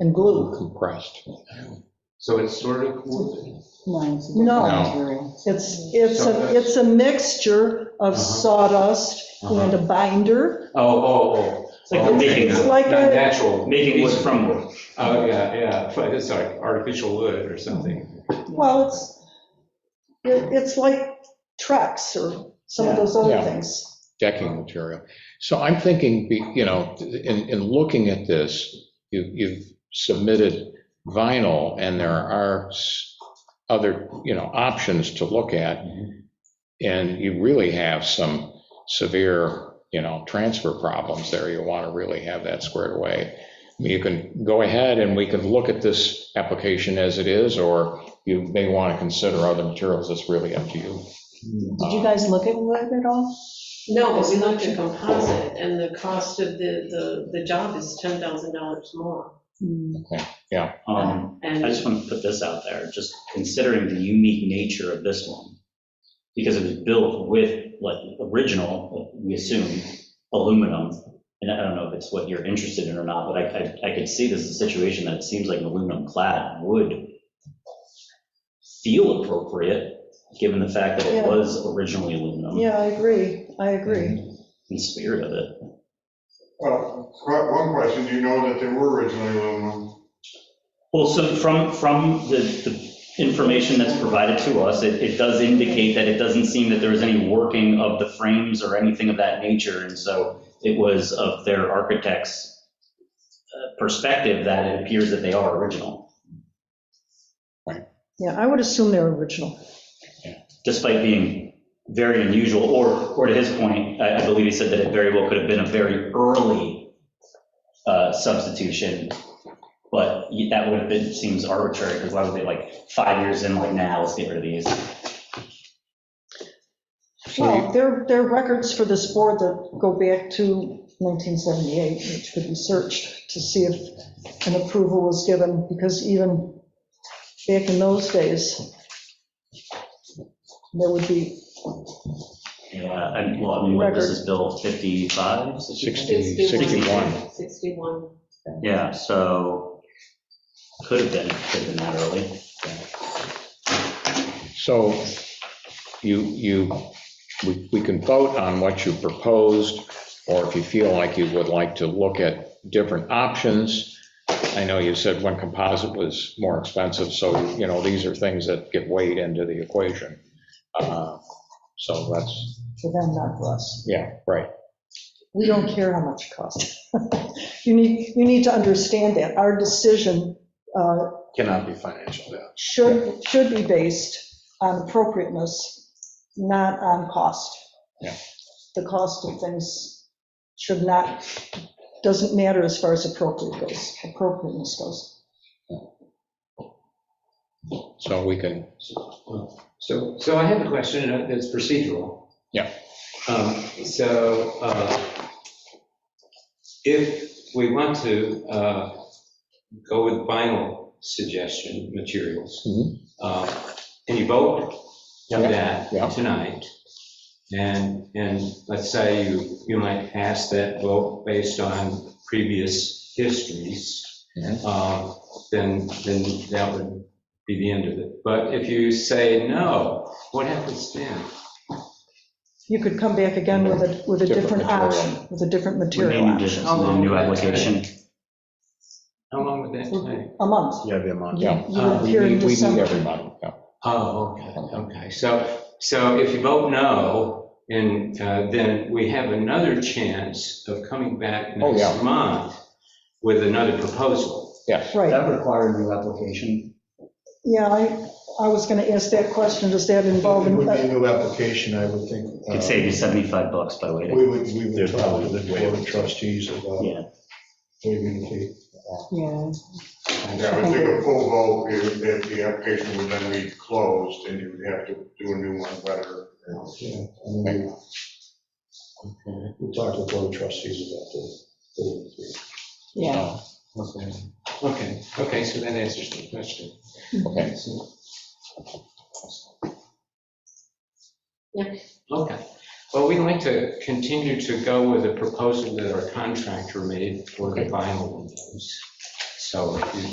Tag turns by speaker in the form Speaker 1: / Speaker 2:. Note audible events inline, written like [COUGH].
Speaker 1: and glue.
Speaker 2: compressed.
Speaker 3: So it's sort of,
Speaker 1: No, it's, it's a, it's a mixture of
Speaker 3: Uh-huh.
Speaker 1: sawdust and a binder. Um,
Speaker 3: oh, oh,
Speaker 4: It's like making,
Speaker 1: It's like
Speaker 3: oh,
Speaker 1: a,
Speaker 3: natural.
Speaker 4: making
Speaker 3: wood.
Speaker 4: these crumble.
Speaker 3: Oh, yeah, yeah, but it's like artificial wood or something.
Speaker 1: well, it's, it- it's like Trex or some of those other
Speaker 2: Yeah.
Speaker 1: things.
Speaker 2: decking material. So I'm thinking, be- you know, in, in looking at this, you- you've submitted vinyl, and there are s- other, you know, options to look at,
Speaker 5: Mm-hmm.
Speaker 2: and you really have some severe, you know, transfer problems there. You want to really have that squared away. I mean, You can go ahead and we can look at this application as it is, or you may want to consider other materials. It's really up to you.
Speaker 5: Did you guys look at wood at all?
Speaker 6: No, but we looked at composite, and the cost of the, the, the job is ten thousand dollars more.
Speaker 4: Um,
Speaker 6: And,
Speaker 4: I just want to put this out there, just considering the unique nature of this one, because it was built with, like, original, we assume, aluminum, and I don't know if it's what you're interested in or not, but I, I- I could see this as a situation that it seems like an aluminum clad would feel appropriate, given the fact that it
Speaker 1: Yeah.
Speaker 4: was originally aluminum,
Speaker 1: Yeah, I agree, I agree.
Speaker 4: in spirit of it.
Speaker 7: Well, qu- one question, do you know that they were originally aluminum?
Speaker 4: Well, so from, from the, the information that's provided to us, it, it does indicate that it doesn't seem that there was any working of the frames or anything of that nature. And so it was of their architect's uh, perspective that it appears that they are original,
Speaker 1: Yeah, I would assume they're original.
Speaker 4: despite being very unusual. Or, or to his point, I, I believe he said that it very well could have been a very early uh, substitution. But that would have been, seems arbitrary, because why would they like, five years in, like, now, let's get rid of these?
Speaker 2: So you-
Speaker 1: Well, there, there are records for this board that go back to 1978, which could be searched to see if an approval was given, because even back in those days, there would be,
Speaker 4: Yeah, and well, I mean, what, this is Bill 55?
Speaker 2: 60, 61.
Speaker 6: 61.
Speaker 4: Yeah, so could have been, could have been that early.
Speaker 2: So you, you, we we can vote on what you proposed, or if you feel like you would like to look at different options. I know you said one composite was more expensive, so, you know, these are things that get weighed into the equation. Uh, So that's,
Speaker 1: for them, not for us.
Speaker 2: yeah, right.
Speaker 1: We don't care how much it costs. [LAUGHS] You need, you need to understand that. Our decision uh,
Speaker 2: Cannot be financial, yeah.
Speaker 1: should, should be based on appropriateness, not on cost.
Speaker 2: Yeah.
Speaker 1: The cost of things should not, doesn't matter as far as appropriate goes, appropriateness goes.
Speaker 2: So we can,
Speaker 3: So, so I have a question uh, that's procedural.
Speaker 2: Yeah.
Speaker 3: Um, So uh, if we want to uh, go with vinyl suggestion materials,
Speaker 2: Mhm.
Speaker 3: uh, and you vote on
Speaker 2: Yeah,
Speaker 3: that
Speaker 2: yeah.
Speaker 3: tonight, and, and let's say you, you might pass that vote based on previous histories,
Speaker 2: Mhm.
Speaker 3: uh, then, then that would be the end of it. But if you say no, what happens then?
Speaker 1: You could come back again with a, with a
Speaker 2: Different
Speaker 1: different
Speaker 2: material.
Speaker 1: option, with a different material
Speaker 4: Remaining
Speaker 1: option,
Speaker 4: additions to the new application.
Speaker 3: How long would that take?
Speaker 1: a month.
Speaker 5: Yeah, the amount.
Speaker 2: yeah. Uh,
Speaker 1: You would
Speaker 2: We
Speaker 1: appear in
Speaker 2: need, we need
Speaker 1: December.
Speaker 2: everybody, yeah.
Speaker 3: Oh, okay, okay. So, so if you vote no, and uh, then we have another chance of coming back
Speaker 2: Oh, yeah.
Speaker 3: next month with another proposal.
Speaker 2: yes.
Speaker 1: Right,
Speaker 4: require a new application?
Speaker 1: yeah, I, I was going to ask that question, does that
Speaker 8: It
Speaker 1: involve?
Speaker 8: would be a new application, I would think. uh,
Speaker 4: Could save you 75 bucks by waiting.
Speaker 8: We would, we would talk to the board of trustees about
Speaker 4: Yeah.
Speaker 8: waiving the fee.
Speaker 1: uh, Yeah,
Speaker 7: Yeah, I would think a full vote, if, if the application would then be closed, and you would have to do a new one better.
Speaker 8: Yeah, and we- We'll talk to the board of trustees about the waiving fee.
Speaker 1: yeah.
Speaker 3: Oh, Okay. Okay, okay, so that answers the question.
Speaker 2: Okay.
Speaker 6: Yeah.
Speaker 3: Okay. Well, we'd like to continue to go with a proposal that our contractor made for the vinyl windows. So if you